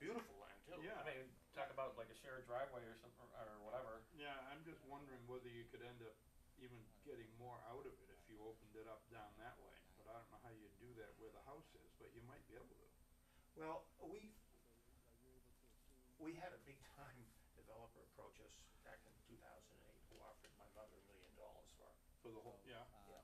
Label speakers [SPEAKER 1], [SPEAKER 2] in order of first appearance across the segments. [SPEAKER 1] beautiful land too.
[SPEAKER 2] Yeah.
[SPEAKER 3] I mean, talk about like a shared driveway or something, or whatever.
[SPEAKER 2] Yeah, I'm just wondering whether you could end up even getting more out of it if you opened it up down that way. But I don't know how you'd do that where the house is, but you might be able to.
[SPEAKER 1] Well, we, we had a big time developer approach us back in two thousand and eight, who offered my mother a million dollars for it.
[SPEAKER 2] For the whole, yeah.
[SPEAKER 4] Uh,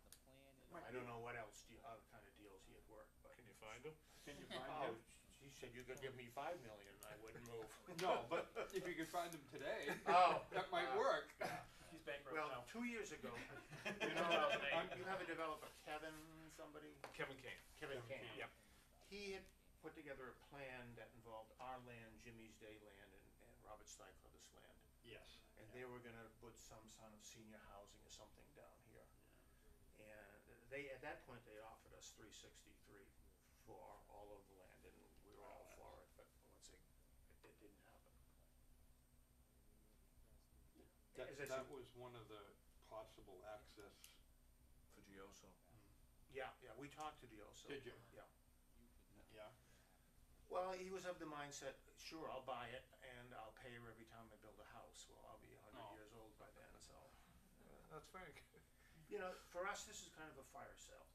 [SPEAKER 4] the plan is.
[SPEAKER 1] I don't know what else, deal- other kind of deals he had worked, but.
[SPEAKER 5] Can you find them?
[SPEAKER 2] Can you find
[SPEAKER 1] Oh,
[SPEAKER 2] him?
[SPEAKER 1] she said you could give me five million, and I wouldn't move.
[SPEAKER 2] No, but if you could find him today,
[SPEAKER 1] Oh.
[SPEAKER 2] that might
[SPEAKER 1] uh,
[SPEAKER 2] work.
[SPEAKER 3] He's bankrupt
[SPEAKER 1] Well,
[SPEAKER 3] now.
[SPEAKER 1] two years ago, you
[SPEAKER 2] You
[SPEAKER 1] know,
[SPEAKER 2] know,
[SPEAKER 1] uh, you have a developer, Kevin somebody,
[SPEAKER 5] Kevin Kane.
[SPEAKER 1] Kevin
[SPEAKER 2] Kevin
[SPEAKER 1] Kane.
[SPEAKER 2] Kane.
[SPEAKER 5] Yep.
[SPEAKER 1] He had put together a plan that involved our land, Jimmy's Day land, and, and Robert Steinfelder's land.
[SPEAKER 2] Yes.
[SPEAKER 1] And they were gonna put some sort of senior housing or something down here. And they, at that point, they offered us three sixty-three for all of the land, and we were all for it, but once it, it it didn't happen.
[SPEAKER 2] That,
[SPEAKER 1] As I
[SPEAKER 2] that
[SPEAKER 1] said-
[SPEAKER 2] was one of the possible access.
[SPEAKER 5] For Gioso.
[SPEAKER 1] Yeah, yeah, we talked to Deoso.
[SPEAKER 2] Did you?
[SPEAKER 1] Yeah.
[SPEAKER 2] Yeah.
[SPEAKER 1] Well, he was of the mindset, sure, I'll buy it and I'll pay her every time I build a house. Well, I'll be a
[SPEAKER 2] Oh.
[SPEAKER 1] hundred years old by then, so.
[SPEAKER 5] That's Frank.
[SPEAKER 1] You know, for us, this is kind of a fire sale.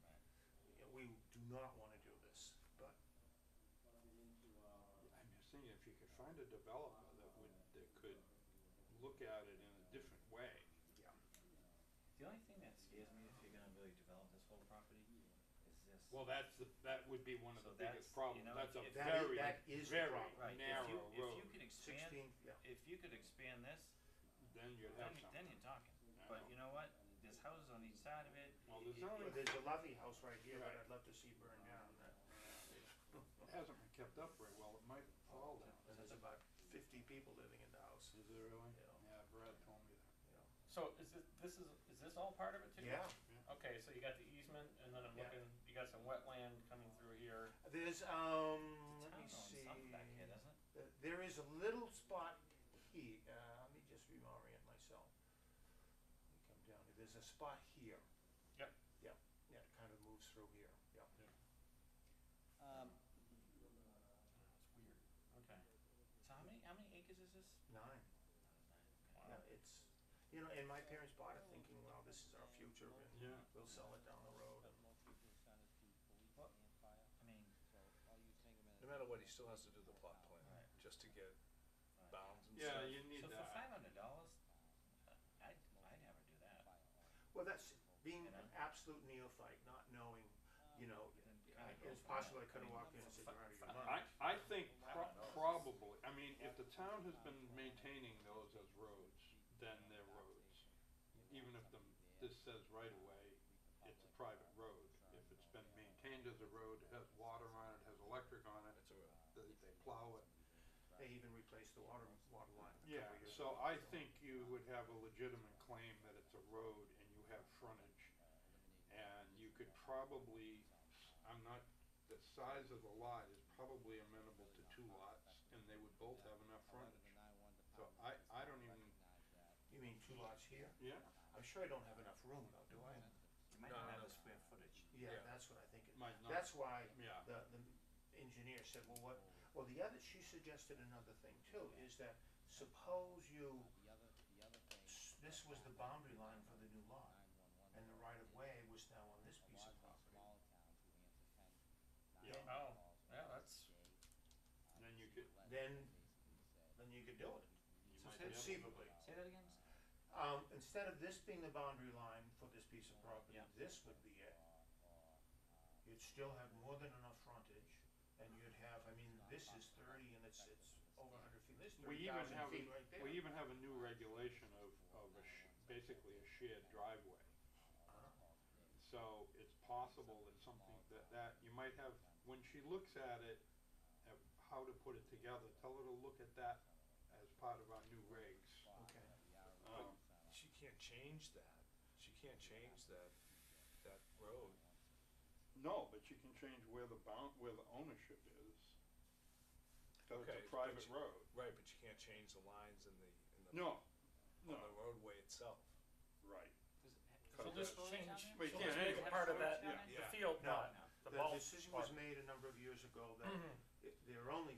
[SPEAKER 1] You know, We do not wanna do this, but
[SPEAKER 2] I'm just thinking if you could find a developer that would, that could look at it in a different way.
[SPEAKER 4] The only thing that scares me if you're gonna really develop this whole property is this.
[SPEAKER 2] Well, that's the, that would be one of
[SPEAKER 4] So
[SPEAKER 2] the
[SPEAKER 4] that's,
[SPEAKER 2] biggest
[SPEAKER 4] you
[SPEAKER 2] problems.
[SPEAKER 4] know,
[SPEAKER 2] That's a
[SPEAKER 4] if-
[SPEAKER 1] That is-
[SPEAKER 2] very,
[SPEAKER 1] that is the
[SPEAKER 2] very
[SPEAKER 1] problem.
[SPEAKER 4] Right, if you,
[SPEAKER 2] narrow
[SPEAKER 4] if you
[SPEAKER 2] road.
[SPEAKER 4] could expand,
[SPEAKER 1] sixteen, yeah.
[SPEAKER 4] if you could expand this,
[SPEAKER 2] Then you'd
[SPEAKER 4] then,
[SPEAKER 2] have
[SPEAKER 4] you- then
[SPEAKER 2] something.
[SPEAKER 4] you're talking.
[SPEAKER 2] I
[SPEAKER 4] But
[SPEAKER 2] know.
[SPEAKER 4] you know what? There's houses on each side of it.
[SPEAKER 2] Well,
[SPEAKER 4] It-
[SPEAKER 2] there's
[SPEAKER 4] it-
[SPEAKER 2] only-
[SPEAKER 1] Well, there's a lovely house right here that
[SPEAKER 2] Right.
[SPEAKER 1] I'd love to see burn down. That-
[SPEAKER 4] Oh,
[SPEAKER 2] It hasn't been kept up very well. It might fall down.
[SPEAKER 1] And there's about fifty people living in the house,
[SPEAKER 2] Is it really?
[SPEAKER 1] Yeah.
[SPEAKER 2] Yeah, Brad told me that.
[SPEAKER 1] you know.
[SPEAKER 3] So is this, this is, is this all part of it too?
[SPEAKER 1] Yeah.
[SPEAKER 3] Okay, so you got the easement and then I'm
[SPEAKER 1] Yeah.
[SPEAKER 3] looking, you got some wetland coming through here.
[SPEAKER 1] There's, um,
[SPEAKER 4] The
[SPEAKER 1] let
[SPEAKER 4] town
[SPEAKER 1] me
[SPEAKER 4] owns
[SPEAKER 1] see.
[SPEAKER 4] something back here, doesn't it?
[SPEAKER 1] Uh, There is a little spot here, uh, let me just reorient myself. Let me come down, here. there's a spot here.
[SPEAKER 3] Yep.
[SPEAKER 1] Yep, yeah, it kind of moves through here, yep.
[SPEAKER 4] Um,
[SPEAKER 3] That's weird. Okay.
[SPEAKER 4] so how many, how many acres is this?
[SPEAKER 1] Nine,
[SPEAKER 3] Wow.
[SPEAKER 1] yeah, it's, you know, and my parents bought it thinking, well, this is our future and
[SPEAKER 2] Yeah.
[SPEAKER 1] we'll sell it down the road. and-
[SPEAKER 4] What? I mean,
[SPEAKER 5] No matter what, he still has to do the plot plan,
[SPEAKER 4] Right.
[SPEAKER 5] just to get
[SPEAKER 4] Right.
[SPEAKER 5] bounds and
[SPEAKER 2] Yeah,
[SPEAKER 5] stuff.
[SPEAKER 2] you need uh,
[SPEAKER 4] so for
[SPEAKER 2] that.
[SPEAKER 4] five hundred dollars, I'd, I'd never do that.
[SPEAKER 1] Well, that's being
[SPEAKER 4] And
[SPEAKER 1] an
[SPEAKER 4] I'm-
[SPEAKER 1] absolute neophyte, not knowing, you know,
[SPEAKER 4] Then
[SPEAKER 1] I-
[SPEAKER 4] kinda go
[SPEAKER 1] it's
[SPEAKER 4] for
[SPEAKER 1] possible
[SPEAKER 4] that.
[SPEAKER 1] I could have
[SPEAKER 4] mean,
[SPEAKER 1] walked in and said, you're out of your
[SPEAKER 2] I,
[SPEAKER 1] mind.
[SPEAKER 2] I think pro- probably, I mean, if the town has been maintaining those as roads, then they're roads. Even if the, this says right away, it's a private road. If it's been maintained as a road, it has water on it, has electric on it,
[SPEAKER 5] It's a real-
[SPEAKER 2] they, they plow it.
[SPEAKER 1] They even replaced the water, water line a couple
[SPEAKER 2] Yeah,
[SPEAKER 1] years
[SPEAKER 2] so
[SPEAKER 1] ago,
[SPEAKER 2] I think you would have a legitimate claim that it's a road and you have frontage. And you could probably, I'm not, the size of the lot is probably amenable to two lots and they would both have enough frontage. So I, I don't even,
[SPEAKER 1] You mean two lots here?
[SPEAKER 2] yeah,
[SPEAKER 1] I'm sure I don't have enough room though, do I?
[SPEAKER 4] You might
[SPEAKER 5] No,
[SPEAKER 4] not
[SPEAKER 5] no,
[SPEAKER 4] have
[SPEAKER 5] no.
[SPEAKER 4] the square footage.
[SPEAKER 1] Yeah,
[SPEAKER 5] Yeah.
[SPEAKER 1] that's what I think. it-
[SPEAKER 2] might not.
[SPEAKER 1] That's why
[SPEAKER 2] Yeah.
[SPEAKER 1] the, the engineer said, well, what, well, the other, she suggested another thing too, is that suppose you, s- this was the boundary line for the new lot, and the right of way was now on this piece of property.
[SPEAKER 2] Yeah.
[SPEAKER 3] Oh, yeah, that's,
[SPEAKER 2] Then you could,
[SPEAKER 1] Then, then you could do it,
[SPEAKER 2] you
[SPEAKER 4] So
[SPEAKER 2] might
[SPEAKER 4] say-
[SPEAKER 2] be able,
[SPEAKER 1] conceivably.
[SPEAKER 4] Say that again?
[SPEAKER 1] Um, instead of this being the boundary line for this piece of property,
[SPEAKER 4] Yeah.
[SPEAKER 1] this would be it. You'd still have more than enough frontage, and you'd have, I mean, this is thirty and it's, it's over hundred feet, this
[SPEAKER 2] we
[SPEAKER 1] thirty
[SPEAKER 2] even
[SPEAKER 1] thousand
[SPEAKER 2] have,
[SPEAKER 1] feet right
[SPEAKER 2] a-
[SPEAKER 1] there.
[SPEAKER 2] we even have a new regulation of, of a sh- basically a shared driveway. So it's possible that something, that, that, you might have, when she looks at it, at how to put it together, tell her to look at that as part of our new regs.
[SPEAKER 1] Okay.
[SPEAKER 2] Um,
[SPEAKER 5] She can't change that. She can't change that, that road.
[SPEAKER 2] no, but you can change where the bound, where the ownership is. So
[SPEAKER 5] Okay,
[SPEAKER 2] it's a
[SPEAKER 5] but
[SPEAKER 2] private
[SPEAKER 5] you-
[SPEAKER 2] road.
[SPEAKER 5] Right, but you can't change the lines in the, in the.
[SPEAKER 2] No, no,
[SPEAKER 5] On the roadway itself.
[SPEAKER 2] right.
[SPEAKER 3] so
[SPEAKER 2] Cut
[SPEAKER 3] just
[SPEAKER 2] that.
[SPEAKER 3] change,
[SPEAKER 2] But you
[SPEAKER 3] so
[SPEAKER 2] can't
[SPEAKER 3] let's make
[SPEAKER 2] anyway.
[SPEAKER 3] it part of that,
[SPEAKER 5] Yeah.
[SPEAKER 3] the field
[SPEAKER 1] No,
[SPEAKER 3] lot, the
[SPEAKER 1] The
[SPEAKER 3] bulk
[SPEAKER 1] decision was
[SPEAKER 3] part. Mm-hmm.
[SPEAKER 1] made a number of years ago that it- there are only